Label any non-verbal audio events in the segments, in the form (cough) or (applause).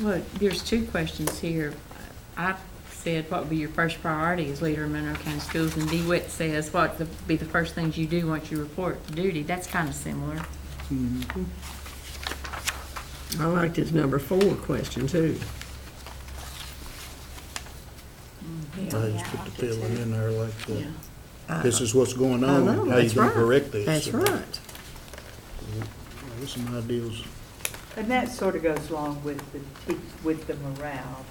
Well, there's two questions here. I said, what would be your first priority as leader of Monroe County Schools? And DeWitt says, what would be the first things you do once you report to duty? That's kind of similar. I liked his number four question too. I just put the feeling in there like, the, I- this is what's going I Oh, on, know, Oh, how you Oh, that's gonna right. correct this. That's right. There's some ideas. And that sort of goes along with the, te- with the morale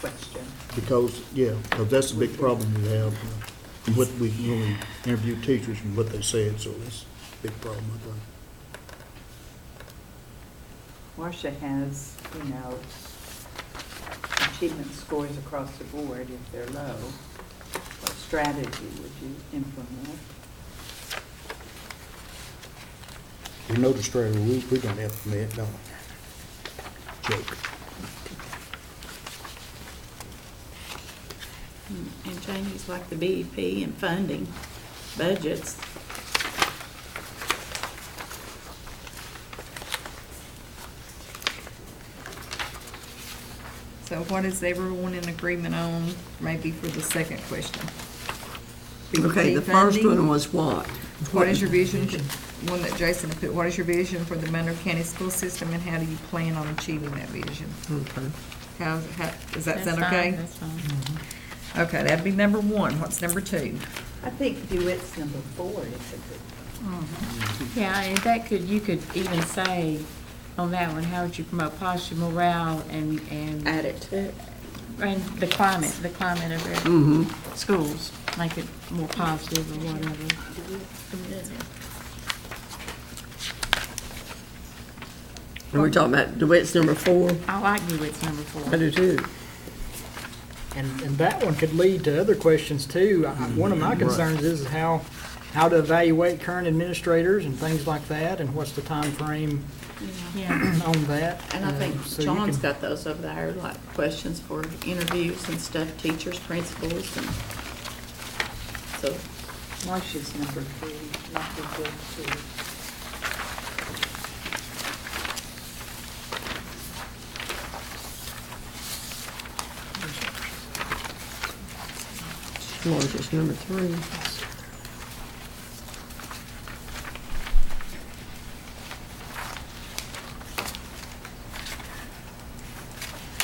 question. Because, yeah, because that's a big problem we have, uh, what we, when we interview teachers and what they said, so that's a big problem, I think. Marcia has, you know, achievement scores across the board if they're low. What strategy would you implement? You notice straight away, we're gonna have to admit, don't we? Joke. And changes like the BEP and funding, budgets. So what is everyone in agreement on, maybe for the second question? Okay, the BP first funding. one was what? What is your vision, one that Jason had put, what is your vision for the Monroe County school system and how do you plan on achieving that vision? Okay. How, how, does that That's sound fine, okay? That's fine. Okay, that'd be number one. What's number two? I think DeWitt's number four is a good, Yeah, and that could, you could even say on that one, how would you promote positive morale and, and, Add it to it. and the climate, the climate of our Mm-hmm. schools? Make it more positive or whatever. And we're talking about DeWitt's number four? I like DeWitt's number I four. do too. And, and that one could lead to other questions too. I- I- One of my concerns is how, how to evaluate current administrators and things like that, and what's the time frame Yeah. (clears throat) on that. And I Uh, so think you John's can- got those over there, like questions for interviews and stuff, teachers, principals, and so Marcia's number three, not the good two. Largest number three.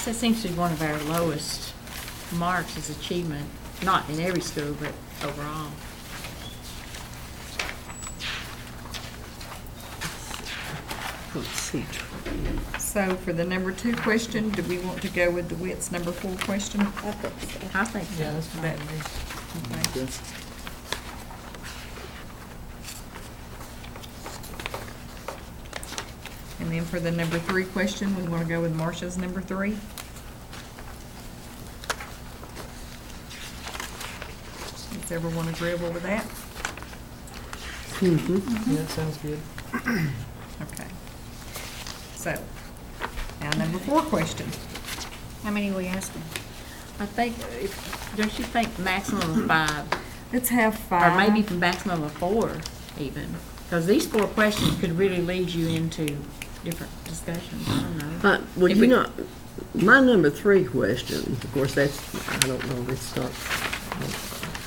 That seems to be one of our lowest marks is achievement, not in every school, but overall. Let's see. So for the number two question, do we want to go with DeWitt's number four question? I think Yeah, so. that's fine. with me. Okay. Okay. And then for the number three question, we want to go with Marcia's number three? Is everyone agreeable with that? Yeah, that sounds good. Okay. So, now number four question. How many we asking? I think, if- don't you think maximum of five, Let's have or five. maybe even maximum of four even? Because these four questions could really lead you into different discussions, I don't know. Uh, Well, If you we- know, my number three question, of course, that's, I don't know, it's not.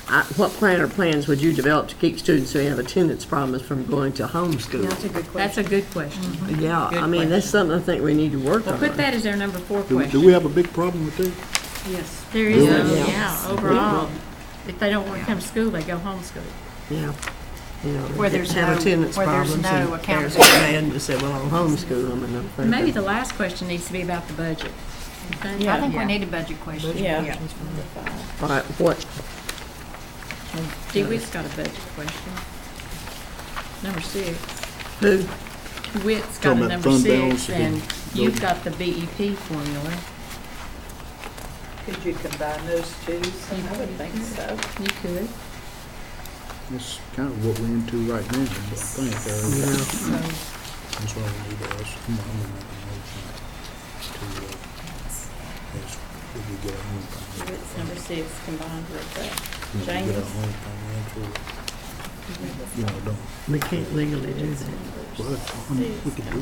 I- What plan or plans would you develop to keep students who have attendance problems from going to homeschool? That's a good question. Yeah, I Good mean, that's question. something I think we need to work Well, on. put that as our number four Do, do we question. have a big problem with that? Yes. There is, Yeah. a- yeah, overall. If they don't want to come to school, they go homeschool. Yeah. You know, Where there's have no- attendance where there's problems and no there's a accountability. plan to say, well, I'll homeschool them and I'm Maybe thinking, the last question needs to be about the budget. I think Yeah. we need a budget question. Yeah. all right, what, DeWitt's got a budget question. Number six. who? DeWitt's got Talking a about number fund six, balance and and- you've got the BEP formula. Could you combine those two I would think so. You could. That's kind of what we're into right now, I think, uh, Yeah. that's why we need to ask, come on, we make a motion to, uh, ask, did we get our own financial- It's number six combined with did we the get our changes. own financial, you know, don't, We can't legally do that. well, I mean, we could do